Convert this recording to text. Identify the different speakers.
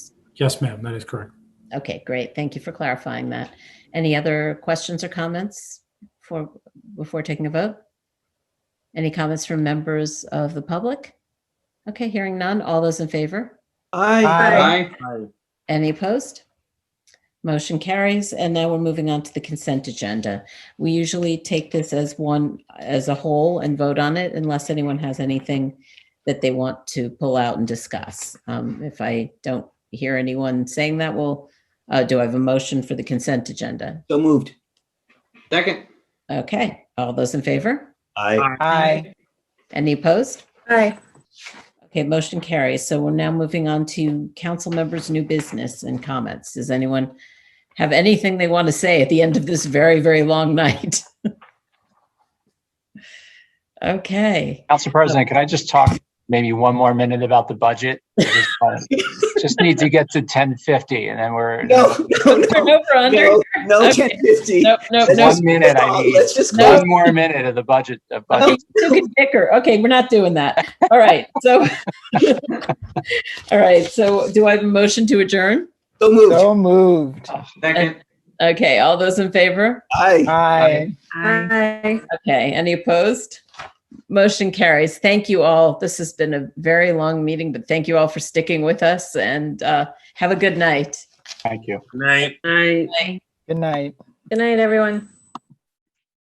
Speaker 1: Yes, ma'am, that is correct.
Speaker 2: Okay, great. Thank you for clarifying that. Any other questions or comments for, before taking a vote? Any comments from members of the public? Okay, hearing none. All those in favor?
Speaker 3: Aye.
Speaker 2: Any opposed? Motion carries, and now we're moving on to the consent agenda. We usually take this as one, as a whole and vote on it unless anyone has anything that they want to pull out and discuss. Um, If I don't hear anyone saying that, we'll uh, do I have a motion for the consent agenda?
Speaker 3: So moved.
Speaker 4: Second.
Speaker 2: Okay, all those in favor?
Speaker 3: Aye.
Speaker 4: Aye.
Speaker 2: Any opposed?
Speaker 5: Aye.
Speaker 2: Okay, motion carries. So we're now moving on to council members' new business and comments. Does anyone have anything they want to say at the end of this very, very long night? Okay,
Speaker 6: Council President, could I just talk maybe one more minute about the budget? I Just uh, just need to get to ten fifty and then we're,
Speaker 3: No, no, no,
Speaker 2: over under?
Speaker 3: no, no,
Speaker 2: Okay.
Speaker 3: 1050.
Speaker 2: Nope, nope,
Speaker 3: Let's
Speaker 2: nope.
Speaker 3: just-
Speaker 6: one minute I need,
Speaker 3: Let's just close.
Speaker 6: one more minute of the budget, of budget.
Speaker 2: Okay, you took it thicker. Okay, we're not doing that. All right, so. All right, so do I have a motion to adjourn?
Speaker 3: So moved.
Speaker 7: So moved.
Speaker 4: Second.
Speaker 2: Okay, all those in favor?
Speaker 3: Aye.
Speaker 7: Aye.
Speaker 5: Aye.
Speaker 2: Okay, any opposed? Motion carries. Thank you all. This has been a very long meeting, but thank you all for sticking with us and uh, have a good night.
Speaker 6: Thank you.
Speaker 4: Night.
Speaker 5: Aye.
Speaker 7: Good night.
Speaker 5: Good night, everyone.